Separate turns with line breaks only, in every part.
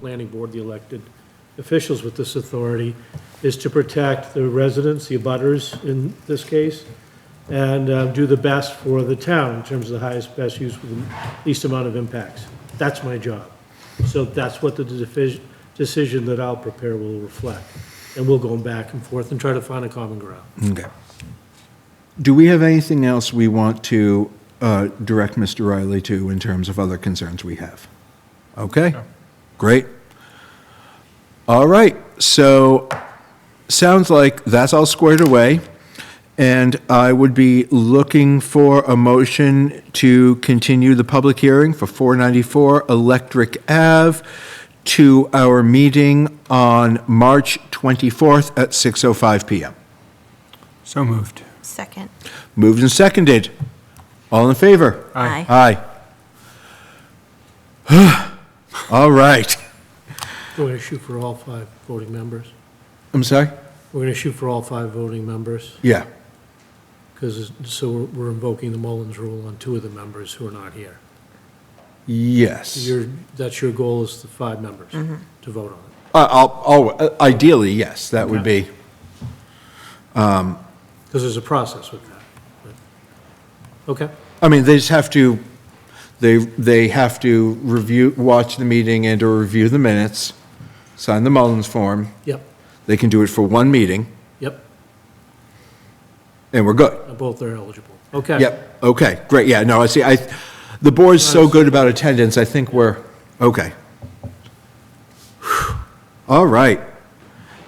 planning board, the elected officials with this authority, is to protect the residents, the abutters in this case, and uh, do the best for the town in terms of the highest, best use with the least amount of impacts. That's my job. So that's what the defi- decision that I'll prepare will reflect. And we'll go back and forth and try to find a common ground.
Okay. Do we have anything else we want to uh, direct Mr. Riley to in terms of other concerns we have? Okay, great. All right, so sounds like that's all squared away, and I would be looking for a motion to continue the public hearing for 494 Electric Ave to our meeting on March 24th at 6:05 PM.
So moved.
Second.
Moved and seconded. All in favor?
Aye.
Aye. All right.
We're going to shoot for all five voting members.
I'm sorry?
We're going to shoot for all five voting members
Yeah.
because, so we're- we're invoking the Mullins rule on two of the members who are not here.
Yes.
Your, that's your goal is the five members to vote on it.
I- I'll, I'll- uh, ideally, yes, that would be,
Because there's a process with that. but- Okay,
I mean, they just have to, they, they have to review, watch the meeting and/or review the minutes, sign the Mullins form.
yep,
They can do it for one meeting,
yep,
and we're good.
both are eligible. Okay.
Yep, okay, great, yeah, no, I see, I, the board's so good about attendance, I think we're, okay. All right.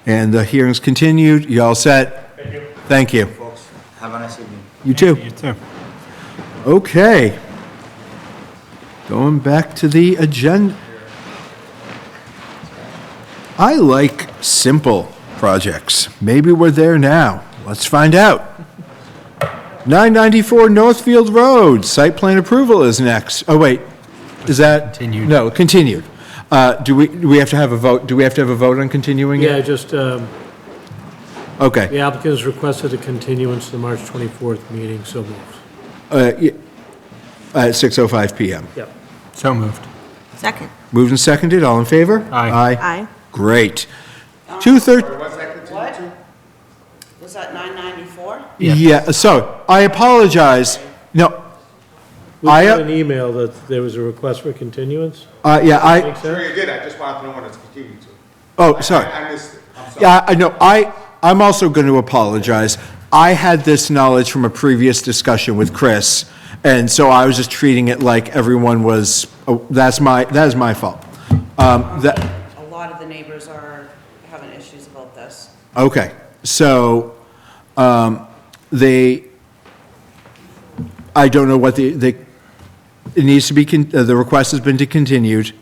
And the hearing's continued, you all set? Thank you. Thank you.
folks. Have a nice evening.
You too.
You too.
Okay. Going back to the agenda. I like simple projects. Maybe we're there now. Let's find out. 994 Northfield Road, site plan approval is next. Oh, wait, is that?
Continued.
No, continued. Uh, Do we, do we have to have a vote? Do we have to have a vote on continuing
Yeah,
it?
just, um,
Okay.
the applicant has requested a continuance to the March 24th meeting, so moves.
Uh, y- At 6:05 PM.
Yep.
So moved.
Second.
Moved and seconded, all in favor?
Aye.
Aye.
Aye.
Great. Two thirty.
What? Was that nine ninety-four?
Yeah, so I apologize. No,
We
I, uh,
got an email that there was a request for continuance.
uh, yeah, I,
Makes
Sure
sense?
you did, I just wanted to know when it's continuing to.
oh, sorry.
I I missed it, I'm sorry.
Yeah, I know, I, I'm also going to apologize. I had this knowledge from a previous discussion with Chris, and so I was just treating it like everyone was, oh, that's my, that is my fault. Um, that,
A lot of the neighbors are having issues about this.
Okay, so, um, they, I don't know what the, the, it needs to be, con- uh, the request has been to continued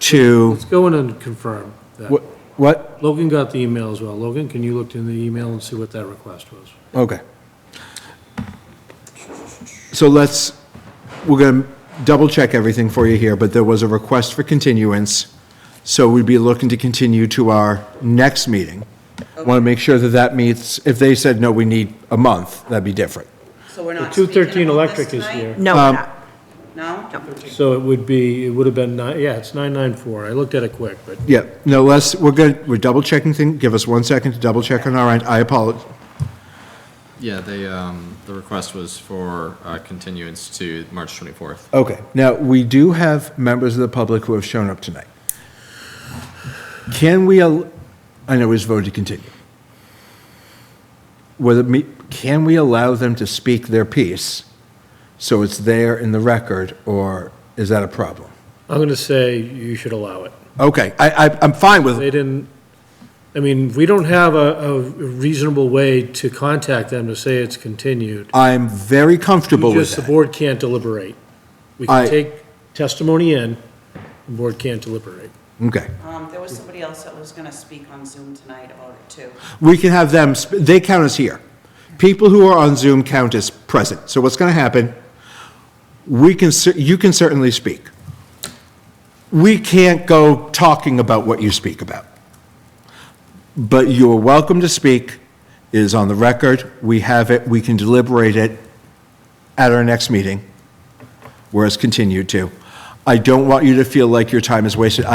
to,
Let's go in and confirm that.
what, what?
Logan got the email as well. Logan, can you look in the email and see what that request was?
Okay. So let's, we're gonna double check everything for you here, but there was a request for continuance, so we'd be looking to continue to our next meeting. Want to make sure that that meets, if they said, no, we need a month, that'd be different.
So we're
The
not speaking
213
about this
electric is
tonight?
here.
No, we're not.
No?
So it would be, it would have been nine, yeah, it's 994. I looked at it quick, but
Yeah, no, let's, we're good, we're double checking thing, give us one second to double check on our end, I apologize.
Yeah, they, um, the request was for uh, continuance to March 24th.
Okay, now, we do have members of the public who have shown up tonight. Can we, al- I know it's voted to continue. Whether, me- can we allow them to speak their piece, so it's there in the record, or is that a problem?
I'm going to say you should allow it.
Okay, I, I, I'm fine with,
They didn't, I mean, we don't have a, a reasonable way to contact them to say it's continued.
I'm very comfortable
You
with
Just, the
that.
board can't deliberate. We can
I-
take testimony in, the board can't deliberate.
Okay.
Um, there was somebody else that was gonna speak on Zoom tonight about it too.
we can have them, sp- they count as here. People who are on Zoom count as present. So what's going to happen, we can, cer- you can certainly speak. We can't go talking about what you speak about. But you're welcome to speak, It is on the record, we have it, we can deliberate it at our next meeting, whereas continue to. I don't want you to feel like your time is wasted.